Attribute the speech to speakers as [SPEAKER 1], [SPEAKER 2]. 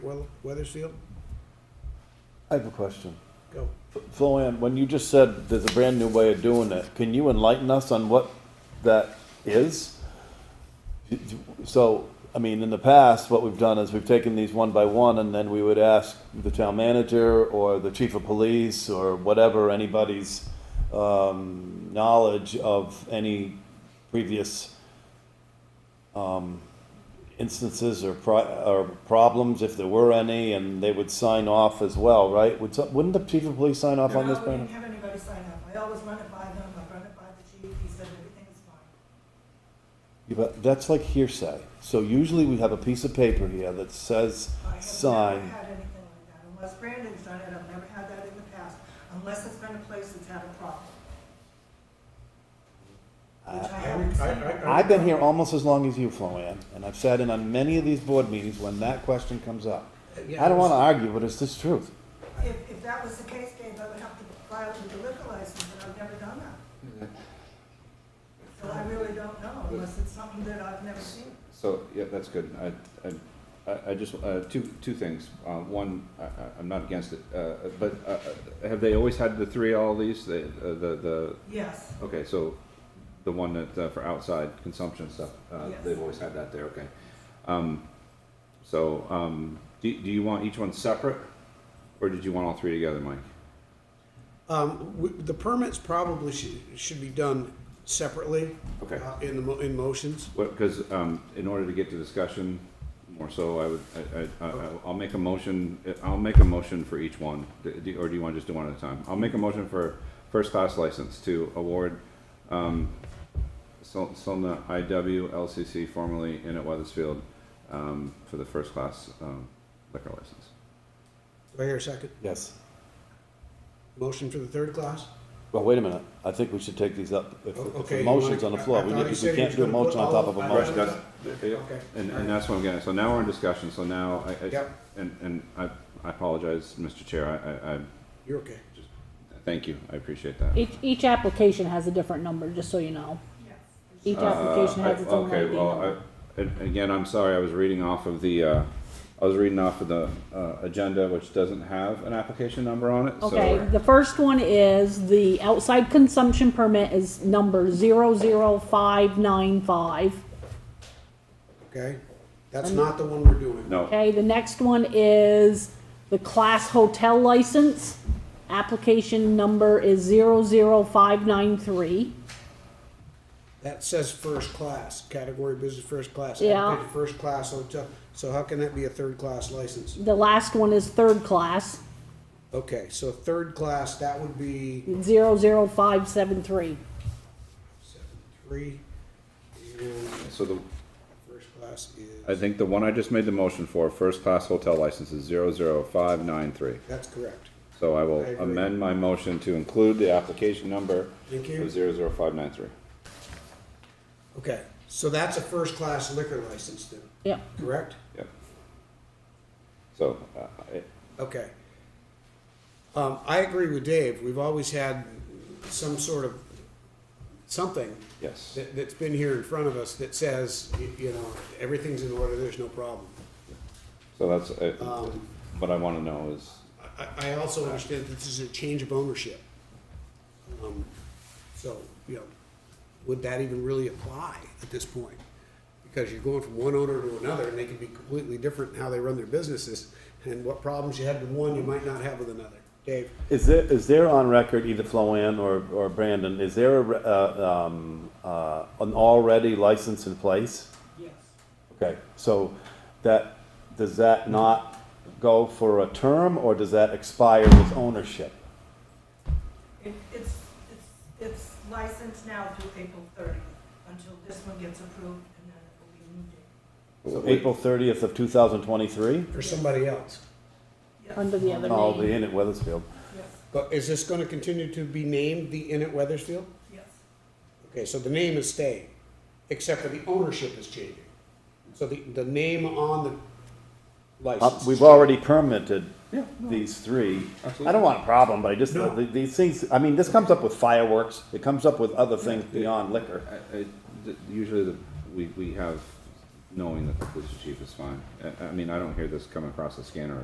[SPEAKER 1] Well, Weathersfield,
[SPEAKER 2] I have a question.
[SPEAKER 1] go.
[SPEAKER 2] F- Floanne, when you just said there's a brand new way of doing it, can you enlighten us on what that is? So, I mean, in the past, what we've done is we've taken these one by one and then we would ask the town manager or the chief of police or whatever, anybody's um, knowledge of any previous um, instances or pro- or problems, if there were any, and they would sign off as well, right? Would some, wouldn't the chief of police sign off on this?
[SPEAKER 3] No, we
[SPEAKER 2] Brandon?
[SPEAKER 3] didn't have anybody sign up. I always run it by them, I run it by the chief, he said everything is fine.
[SPEAKER 2] Yeah, but that's like hearsay. So usually we have a piece of paper here that says
[SPEAKER 3] I have
[SPEAKER 2] sign.
[SPEAKER 3] never had anything like that, unless Brandon's done it, I've never had that in the past, unless it's been a place that's had a problem. Which I
[SPEAKER 1] I-
[SPEAKER 3] haven't
[SPEAKER 1] I-
[SPEAKER 3] seen.
[SPEAKER 1] I-
[SPEAKER 2] I've been here almost as long as you, Floanne, and I've sat in on many of these board meetings when that question comes up. I don't wanna argue, but it's the truth.
[SPEAKER 3] If, if that was the case, Dave, I would have to file with the liquor license, and I've never done that. So I really don't know, unless it's something that I've never seen.
[SPEAKER 4] So, yeah, that's good. I, I- I, I just, uh, two, two things. Uh, one, I, I- I'm not against it, uh, but, uh, uh, have they always had the three all these? The, uh, the, the,
[SPEAKER 3] Yes,
[SPEAKER 4] okay, so the one that, uh, for outside consumption stuff, uh,
[SPEAKER 3] Yes.
[SPEAKER 4] they've always had that there, okay. Um, so, um, do, do you want each one separate? Or did you want all three together, Mike?
[SPEAKER 1] Um, we- the permits probably should, should be done separately.
[SPEAKER 4] Okay.
[SPEAKER 1] uh, In the, mo- in motions.
[SPEAKER 4] What, because, um, in order to get to discussion, more so, I would, I, I, I, I'll make a motion, I'll make a motion for each one, Do- do- or do you want to just do one at a time? I'll make a motion for first-class license to award, um, Sol- Solna IW LCC formerly in at Weathersfield, um, for the first-class, um, liquor license.
[SPEAKER 1] Do I hear a second?
[SPEAKER 2] Yes.
[SPEAKER 1] Motion for the third class?
[SPEAKER 2] Well, wait a minute. I think we should take these up. If
[SPEAKER 1] O-
[SPEAKER 2] if
[SPEAKER 1] okay,
[SPEAKER 2] the
[SPEAKER 1] you
[SPEAKER 2] motion's on
[SPEAKER 1] wanna-
[SPEAKER 2] the floor,
[SPEAKER 1] I- I
[SPEAKER 2] we
[SPEAKER 1] thought you
[SPEAKER 2] need-
[SPEAKER 1] said
[SPEAKER 2] we
[SPEAKER 1] you
[SPEAKER 2] can't
[SPEAKER 1] was
[SPEAKER 2] do a
[SPEAKER 1] gonna put
[SPEAKER 2] motion on
[SPEAKER 1] all
[SPEAKER 2] top of a
[SPEAKER 1] of-
[SPEAKER 2] motion.
[SPEAKER 4] Right, that's- And, and that's what I'm getting, at. so now we're in discussion, so now, I, I,
[SPEAKER 1] Yep.
[SPEAKER 4] and, and I, I apologize, Mr. Chair, I, I, I,
[SPEAKER 1] You're okay.
[SPEAKER 4] thank you, I appreciate that.
[SPEAKER 5] Each, each application has a different number, just so you know. Each
[SPEAKER 4] Uh,
[SPEAKER 5] application has
[SPEAKER 4] I-
[SPEAKER 5] its own
[SPEAKER 4] Okay,
[SPEAKER 5] ID
[SPEAKER 4] well,
[SPEAKER 5] number.
[SPEAKER 4] I- and again, I'm sorry, I was reading off of the, uh, I was reading off of the uh, agenda, which doesn't have an application number on it, so.
[SPEAKER 5] Okay, the first one is the outside consumption permit is number zero zero five nine five.
[SPEAKER 1] Okay? That's not the one we're doing.
[SPEAKER 4] No,
[SPEAKER 5] Okay, the next one is the class hotel license. Application number is zero zero five nine three.
[SPEAKER 1] That says first class, category business first class.
[SPEAKER 5] Yeah.
[SPEAKER 1] Application First class hotel. So how can that be a third class license?
[SPEAKER 5] The last one is third class,
[SPEAKER 1] Okay, so third class, that would be
[SPEAKER 5] zero zero five seven three.
[SPEAKER 1] seven, three. And
[SPEAKER 4] so the,
[SPEAKER 1] first class
[SPEAKER 4] I
[SPEAKER 1] is,
[SPEAKER 4] think the one I just made the motion for, first-class hotel license is zero zero five nine three.
[SPEAKER 1] that's correct.
[SPEAKER 4] So I will
[SPEAKER 1] I agree.
[SPEAKER 4] amend my motion to include the application number
[SPEAKER 1] Thank you.
[SPEAKER 4] of zero zero five nine three.
[SPEAKER 1] Okay, so that's a first class liquor license then,
[SPEAKER 5] Yep,
[SPEAKER 1] correct?
[SPEAKER 4] Yep. So, uh, I-
[SPEAKER 1] Okay. Um, I agree with Dave. We've always had some sort of something
[SPEAKER 4] yes,
[SPEAKER 1] that, that's been here in front of us that says, y- you know, everything's in order, there's no problem.
[SPEAKER 4] so that's, uh,
[SPEAKER 1] Um,
[SPEAKER 4] what I wanna know is,
[SPEAKER 1] I, I also understand that this is a change of ownership. Um, So, you know, would that even really apply at this point? Because you're going from one owner to another, and they can be completely different in how they run their businesses, and what problems you had with one, you might not have with another. Dave?
[SPEAKER 2] Is there, is there on record, either Floanne or, or Brandon, is there a, re- uh, um, uh, an already license in place?
[SPEAKER 3] yes.
[SPEAKER 2] Okay, so that, does that not go for a term, or does that expire with ownership?
[SPEAKER 3] It, it's, it's, it's licensed now through April thirtieth, until this one gets approved, and then it will be moved in.
[SPEAKER 2] So April thirtieth of two thousand twenty-three?
[SPEAKER 1] Or somebody else?
[SPEAKER 3] Yes.
[SPEAKER 5] under the other
[SPEAKER 2] Oh, the
[SPEAKER 5] name.
[SPEAKER 2] Inn at Weathersfield.
[SPEAKER 3] Yes,
[SPEAKER 1] But is this gonna continue to be named the Inn at Weathersfield?
[SPEAKER 3] yes.
[SPEAKER 1] Okay, so the name is staying, except for the ownership is changing. So the, the name on the
[SPEAKER 2] Uh,
[SPEAKER 1] license.
[SPEAKER 2] We've already permitted these three. I don't want a problem, but I just,
[SPEAKER 1] No.
[SPEAKER 2] th- these things, I mean, this comes up with fireworks, it comes up with other things beyond liquor.
[SPEAKER 4] I- I- th- Usually the, we, we have knowing that the police chief is fine. I, I mean, I don't hear this coming across the scanner